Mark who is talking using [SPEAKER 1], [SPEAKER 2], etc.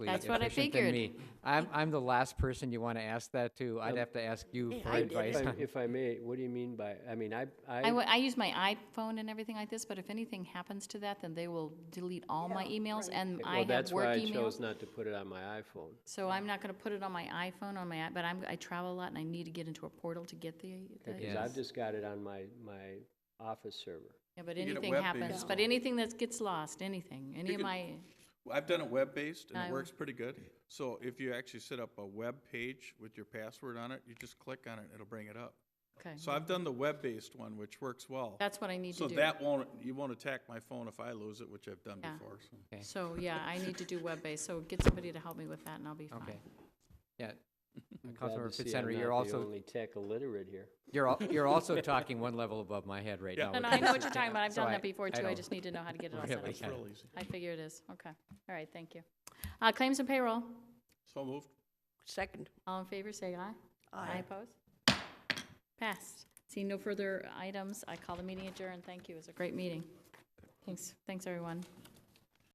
[SPEAKER 1] That's what I
[SPEAKER 2] efficient than
[SPEAKER 1] figured.
[SPEAKER 2] me. I'm, I'm the last person you want to ask that to. I'd
[SPEAKER 3] Um,
[SPEAKER 2] have to ask you
[SPEAKER 1] Yeah,
[SPEAKER 2] for
[SPEAKER 1] I did
[SPEAKER 2] advice.
[SPEAKER 1] that.
[SPEAKER 2] on-
[SPEAKER 3] If I- If I may, what do you mean by, I mean, I,
[SPEAKER 1] I,
[SPEAKER 3] I,
[SPEAKER 1] w- I use my iPhone and everything like this, but if anything happens to that, then they will delete all my emails and I
[SPEAKER 3] well,
[SPEAKER 1] have
[SPEAKER 3] that's
[SPEAKER 1] work
[SPEAKER 3] why I
[SPEAKER 1] emails.
[SPEAKER 3] chose not to put it on my iPhone.
[SPEAKER 1] So I'm not gonna put it on my iPhone, on my, i- but I'm, I travel a lot and I need to get into a portal to get the, the-
[SPEAKER 3] Because I've just got it on my, my office server.
[SPEAKER 1] yeah, but
[SPEAKER 4] You get a
[SPEAKER 1] anything
[SPEAKER 4] web
[SPEAKER 1] happens,
[SPEAKER 4] based
[SPEAKER 1] but
[SPEAKER 4] one.
[SPEAKER 1] anything that gets lost, anything, any of
[SPEAKER 4] could-
[SPEAKER 1] my,
[SPEAKER 4] Well, I've done it web-based, and
[SPEAKER 1] I-
[SPEAKER 4] it works pretty good. So if you actually set up a web page with your password on it, you just click on it, it'll bring it up.
[SPEAKER 1] okay.
[SPEAKER 4] So I've done the web-based one, which works well.
[SPEAKER 1] That's what I need to
[SPEAKER 4] So
[SPEAKER 1] do.
[SPEAKER 4] that won't, you won't attack my phone if I lose it, which I've done
[SPEAKER 1] Yeah.
[SPEAKER 4] before, so.
[SPEAKER 1] So, yeah, I need to do web-based, so get somebody to help me with that and I'll be fine.
[SPEAKER 2] Okay. Yeah.
[SPEAKER 3] I'm glad
[SPEAKER 2] Councilmember
[SPEAKER 3] to see I'm
[SPEAKER 2] Fitzhenry,
[SPEAKER 3] not
[SPEAKER 2] you're
[SPEAKER 3] the
[SPEAKER 2] also,
[SPEAKER 3] only tech illiterate here.
[SPEAKER 2] you're, al- you're also talking one level above my head right
[SPEAKER 4] Yeah.
[SPEAKER 2] now.
[SPEAKER 1] And
[SPEAKER 2] with
[SPEAKER 1] I know
[SPEAKER 2] this.
[SPEAKER 1] what you're talking about, I've
[SPEAKER 2] So
[SPEAKER 1] done
[SPEAKER 2] I-
[SPEAKER 1] that before too, I
[SPEAKER 2] don't-
[SPEAKER 1] just need to know how to get it all set
[SPEAKER 2] Really?
[SPEAKER 1] up.
[SPEAKER 4] It's real easy.
[SPEAKER 1] I figure it is, okay. All right, thank you. Uh, claims and payroll,
[SPEAKER 4] So moved.
[SPEAKER 5] Second.
[SPEAKER 1] all in favor, say aye. Aye. Opposed? Passed. Seeing no further items, I call the meeting adjourned. Thank you, it was a great meeting. Thanks, thanks, everyone.